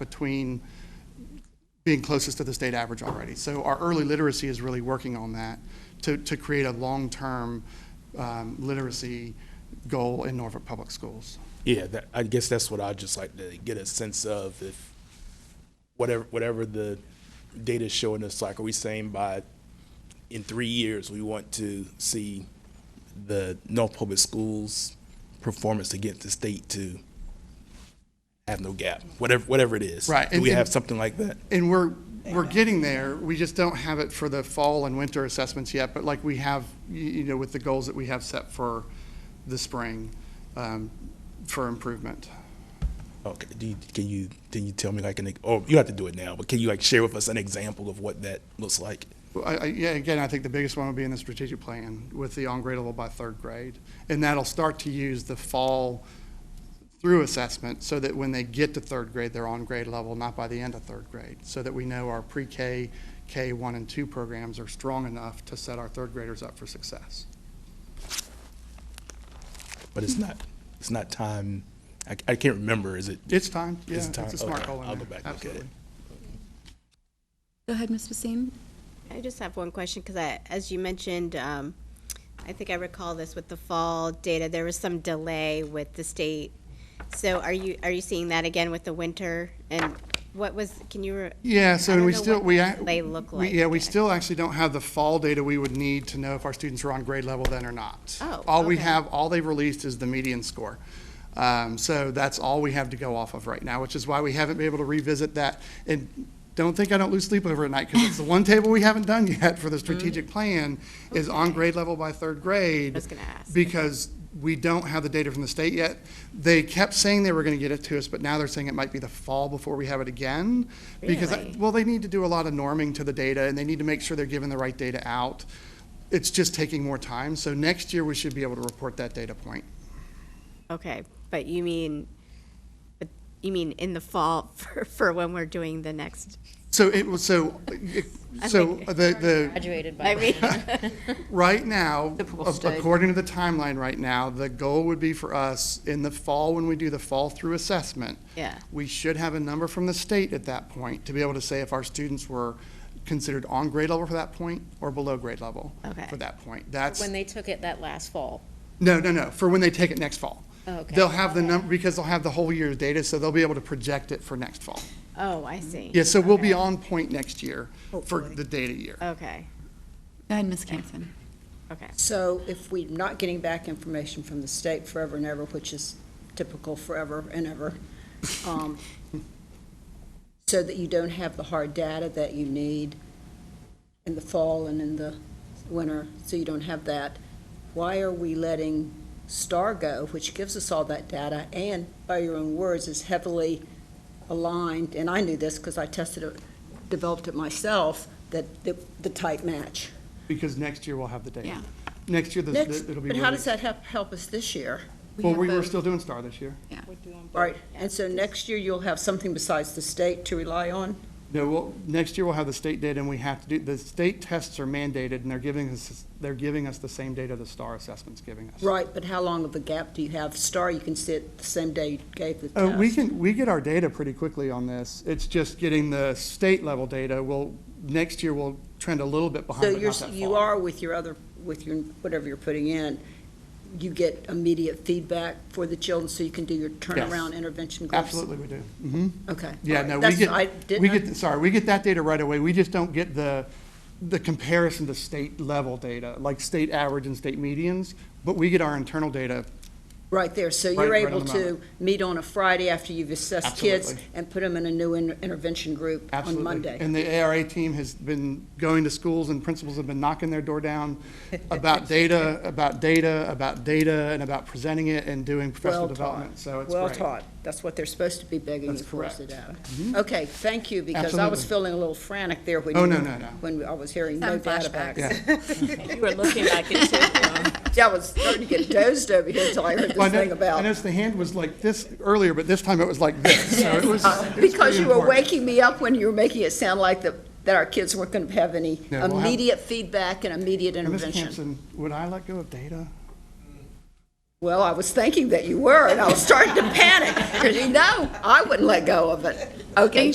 between being closest to the state average already. So our early literacy is really working on that to, to create a long-term um, literacy goal in Norfolk Public Schools. Yeah, that, I guess that's what I'd just like to get a sense of if whatever, whatever the data's showing us, like, are we saying by, in three years, we want to see the North Public Schools performance against the state to have no gap, whatever, whatever it is. Right, Do and- we have and- something like that? And we're, we're getting there, we just don't have it for the fall and winter assessments yet, but like we have, y- you know, with the goals that we have set for the spring um, for improvement. Okay, do you, can you, can you tell me like an, or you have to do it now, but can you like share with us an example of what that looks like? Well, I, I, yeah, again, I think the biggest one would be in the strategic plan with the on-grade level by third grade. And that'll start to use the fall through assessment so that when they get to third grade, they're on grade level, not by the end of third grade. So that we know our pre-K, K one and two programs are strong enough to set our third graders up for success. Mm-hmm. But it's not, it's not time, I, I can't remember, is it? It's time, yeah, Is it's it time? a smart Okay, goal in I'll go there, back and look at it. absolutely. Go ahead, Ms. Basine. I just have one question, because I, as you mentioned, um, I think I recall this with the fall data, there was some delay with the state. So are you, are you seeing that again with the winter? And what was, can you, re- Yeah, so I don't we know still, what we. ac- they look we- like Yeah, we yet. still actually don't have the fall data we would need to know if our students are on grade level then or not. Oh, All we okay. have, all they've released is the median score. Um, So that's all we have to go off of right now, which is why we haven't been able to revisit that. And don't think I don't lose sleep over at night, because it's the one table we haven't done yet for the strategic plan is on grade level by third grade. Mm. I was gonna ask. Because we don't have the data from the state yet. They kept saying they were going to get it to us, but now they're saying it might be the fall before we have it again. Because, I- Really? well, they need to do a lot of norming to the data, and they need to make sure they're giving the right data out. It's just taking more time, so next year we should be able to report that data point. okay, but you mean, but you mean in the fall for, for when we're doing the next? So it was, so, it- so the, the, graduated by I mean, right now, Typical ac- state. according to the timeline right now, the goal would be for us, in the fall, when we do the fall through assessment, yeah, we should have a number from the state at that point to be able to say if our students were considered on grade level for that point or below grade level Okay. for that point. That's. when they took it that last fall. No, no, no, for when they take it next fall. Okay. They'll have the number, because they'll have the whole year's data, so they'll be able to project it for next fall. oh, I see. Yeah, so we'll be Okay. on point next year for the data year. Okay, Go ahead, Ms. Campson. okay, So if we're not getting back information from the state forever and ever, which is typical forever and ever, um, so that you don't have the hard data that you need in the fall and in the winter, so you don't have that, why are we letting STAR go, which gives us all that data, and by your own words, is heavily aligned, and I knew this because I tested it, developed it myself, that the, the type match. Because next year we'll have the data. Yeah. Next year, the- Next, the- it'll be. but how released. does that help, help us this year? Well, we were both. still doing STAR this year. Right, and so next year you'll have something besides the state to rely on? No, well, next year we'll have the state data and we have to do, the state tests are mandated and they're giving us, they're giving us the same data the STAR assessment's giving us. Right, but how long of a gap do you have? Star, you can see it the same day you gave the Uh, test. we can, we get our data pretty quickly on this. It's just getting the state level data. We'll, next year we'll trend a little bit behind, So but not you're, that you far. are with your other, with your, whatever you're putting in, you get immediate feedback for the children, so you can do your turnaround intervention groups? Absolutely we do. hmm Okay. Yeah, all right. no, we That's- I get, didn't we know- get, sorry, we get that data right away. We just don't get the, the comparison to state level data, like state average and state medians, but we get our internal data. Right there, so Right- you're right on able the to moment. meet on a Friday after you've assessed kids Absolutely. and put them in a new in- intervention group Absolutely. on Monday? And the ARA team has been going to schools and principals have been knocking their door down about data, about data, about data, and about presenting it and doing professional Well development, taught. so it's great. Well taught. That's what they're supposed to be begging That's you for, is the correct. Mm-hmm. data. Okay, thank you, because I was Absolutely. feeling a little frantic there when. Oh, you- no, no, no. When I was hearing no Having data flashbacks. back. Yeah. You were looking like it too. Yeah, I was starting to get dozed over here until I heard Well, I this thing know- I about. noticed the hand was like this earlier, but this time it was like this, so it was. it was Because pretty you were important. waking me up when you were making it sound like that, that our kids weren't going to have any No, we'll have- immediate feedback and immediate And Ms. intervention. Campson, would I let go of data? Well, I was thinking that you were, and I was starting to panic, because you know, I wouldn't let go of it. Okay,